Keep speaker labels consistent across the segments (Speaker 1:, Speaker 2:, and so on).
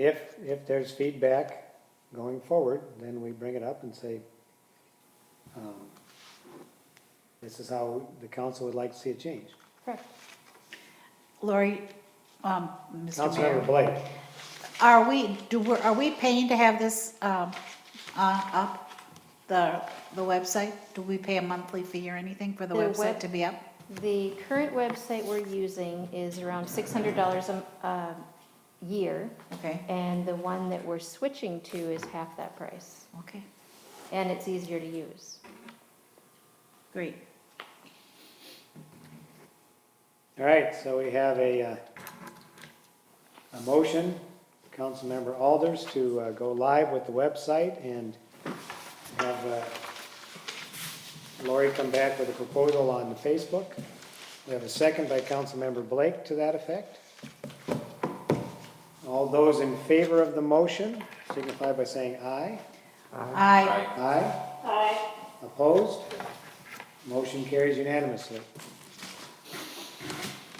Speaker 1: If, if there's feedback going forward, then we bring it up and say, um, this is how the council would like to see it changed.
Speaker 2: Correct. Lori, um, Mr.
Speaker 1: Councilmember
Speaker 2: Mayor,
Speaker 1: Blake,
Speaker 2: are we, do, we- are we paying to have this, um, uh, up? The, the website? Do we pay a monthly fee or anything for the
Speaker 3: The
Speaker 2: website
Speaker 3: web-
Speaker 2: to be up?
Speaker 3: The current website we're using is around six hundred dollars a, a year,
Speaker 2: Okay,
Speaker 3: and the one that we're switching to is half that price,
Speaker 2: okay,
Speaker 3: and it's easier to use.
Speaker 2: great.
Speaker 1: all right, so we have a, uh, a motion, Councilmember Alders, to uh, go live with the website and have uh, Lori come back with a proposal on the Facebook. We have a second by Councilmember Blake to that effect. All those in favor of the motion signify by saying aye.
Speaker 2: I,
Speaker 1: Aye? Aye. Opposed? Motion carries unanimously.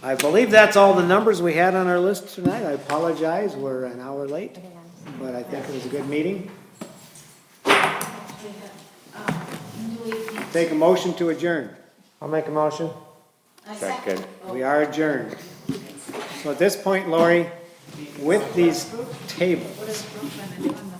Speaker 1: I believe that's all the numbers we had on our list tonight. I apologize, we're an hour late,
Speaker 3: Hang on.
Speaker 1: but I think it was a good meeting. Take a motion to adjourn.
Speaker 4: I'll make a motion.
Speaker 5: Second.
Speaker 1: We are adjourned. So at this point, Lori, with these tables,
Speaker 2: What is Brooklyn and doing the